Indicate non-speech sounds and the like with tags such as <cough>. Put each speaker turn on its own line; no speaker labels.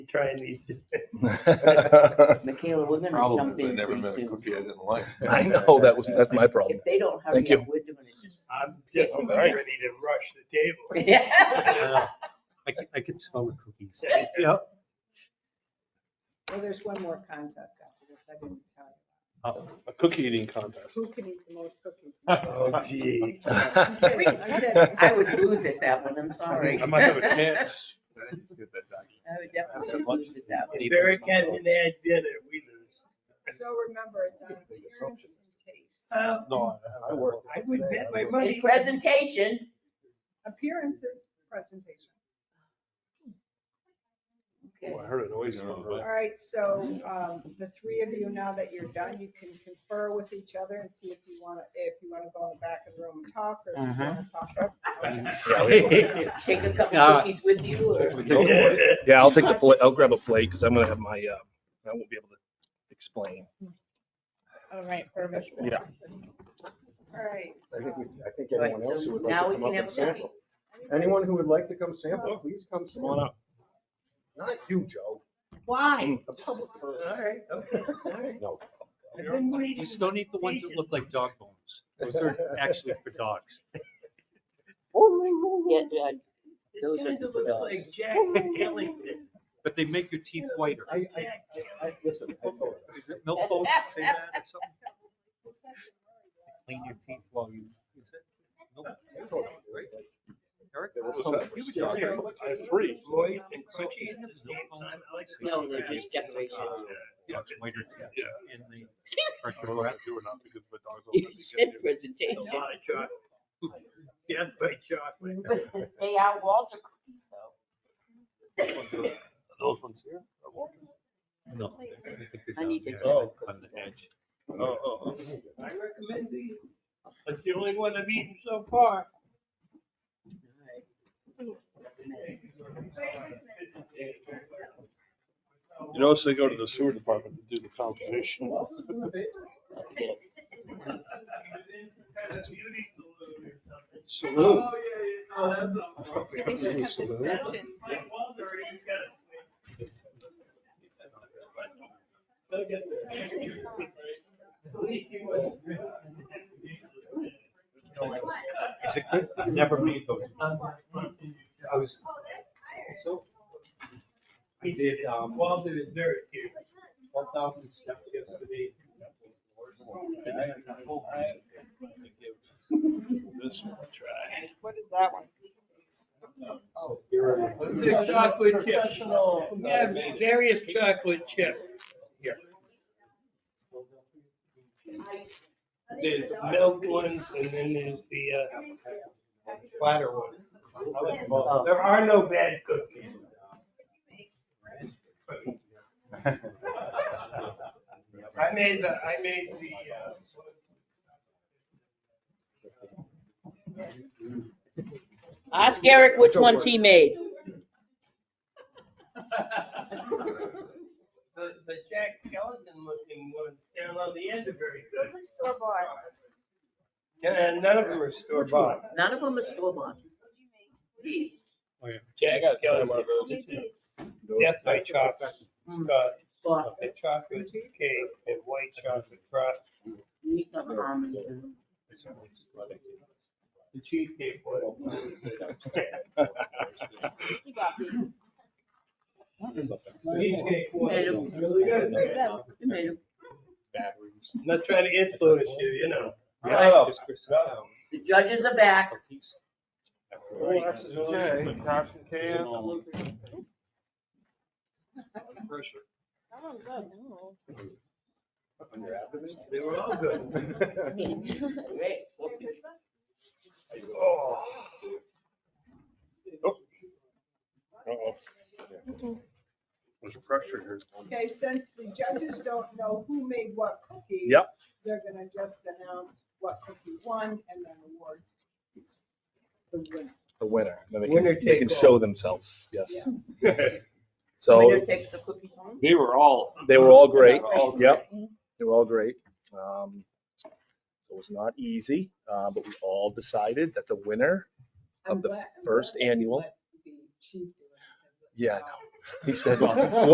try and eat
<laughs>
it.
<laughs>
Michaela, we're gonna do
Problem is, I
something
never
pretty
met a
soon.
cookie I didn't like.
I know, that was, that's my problem. <laughs>
If they don't hurry
Thank you.
up, we're doing it just.
I'm just
Yeah.
about ready to rush the <laughs> table.
Yeah.
Yeah. I could, I could smell <laughs> the cookies. Yeah.
Well, there's one more contest after this, I didn't tell you.
A cookie eating contest.
Who can eat the most
<laughs>
cookies?
Oh, gee.
I would lose at that
<laughs>
one, I'm sorry.
I might have
<laughs>
a chance.
I just get that document.
I would definitely lose at that one.
If Eric hasn't had dinner, we lose.
So remember, it's on appearance and taste.
Uh,
No, I work.
I would bet my money. <laughs>
In presentation,
Appearance is presentation.
okay,
Oh, I heard it always.
All right, so um, the three of you, now that you're done, you can confer with each other and see if you want to, if you want to go in the back of the room and talk or if you want
Mm-hmm.
to talk up.
take a couple
Yeah.
cookies with you or?
Yeah, I'll take the plate, I'll grab a plate, because I'm gonna have my, uh, I won't be able to explain.
All right, perfect.
Yeah.
All right.
I think, we- I think
Right,
anyone else
so
who would
now
like
we
to come up
can have
and
a
sample.
cookie.
Anyone who would like to come sample, please come
Come on
sample.
up.
Not you, Joe, Mm.
Why?
a public person.
All right, okay, all right.
No.
I've been waiting.
You still need the ones that look like dog bones. Those are actually for dogs.
<laughs> Yeah, yeah,
This
Those are
kinda
good
looks
dogs.
like Jack Skellington.
But they make your teeth whiter.
I, I,
Jack
I, I- listen, I told you.
Is it milk bones that say that or something? Clean your teeth while you, is it? milk
I told you, right?
Eric?
There were
What
some
was that? You
that
were
were
here.
scary.
I had three.
Moist and crunchy at the same
No,
time. I like the-
No, they're just
uh,
decorations.
Yeah, it's whiter teeth
Yeah.
in the-
I don't know if you were not because my dogs
You
always
said
get you.
<laughs> A
presentation.
lot of chocolate. Yes, by chocolate.
They are Walter cookies though.
Those ones here? are walking? No. I think they're
I need to
down
do
here
it.
On the edge.
Oh, oh, oh.
<laughs> I recommend these. That's the only one I've eaten so far.
You notice they go to the sewer department to do the compensation.
Oh, yeah, yeah, oh, that's
Maybe we
<laughs>
should have
That
discussion.
was Mike Walter, he's got it. Look at that. At least he wasn't.
Is it good? I Never made those. I was, so. I did, um,
Walter is very cute.
one thousand steps yesterday. And I had a whole bunch of them. I give This one a
What is that one?
try. Here it is.
The chocolate chip.
Professional.
Yeah, various chocolate chip. There's milk ones and then there's the uh, flatter one. I like them
Oh.
all. There are no bad cookies. I made the, I made
Ask Eric which ones he made.
the, uh, <laughs> the, the Jack Skeleton looking ones down on the end are very good.
are store bought.
And none of them are store bought.
None of them are store bought.
Jack Skeleton, Death by Chocolate, Mm. Scott,
Bought.
the chocolate cake and white chocolate frosting.
We thought harmony.
The cheesecake one. Cheesecake one.
Made 'em.
Really good.
We made 'em.
I'm Not trying to influence you, you know.
Right.
Just Chris Brown.
The judges
<laughs>
are back.
Oh,
Okay, cash and
It's an
can.
all- Pressure.
They were all good.
<laughs> Great.
Oh.
Uh-oh. There's pressure here.
Okay, since the judges don't know who made what cookies.
Yep.
They're gonna just announce what cookie won and then award the winner.
The winner, then they
Winner
can, they can
take all.
show themselves, yes.
Yes.
So
Winner takes the cookies home.
They were all.
they were all great,
uh,
All great.
yep, they were all great. Um, It was not easy, uh, but we all decided that the winner
I'm
Of the
glad- I'm
first
glad they
annual.
let the chief do it, because,
Yeah, I
um,
He said,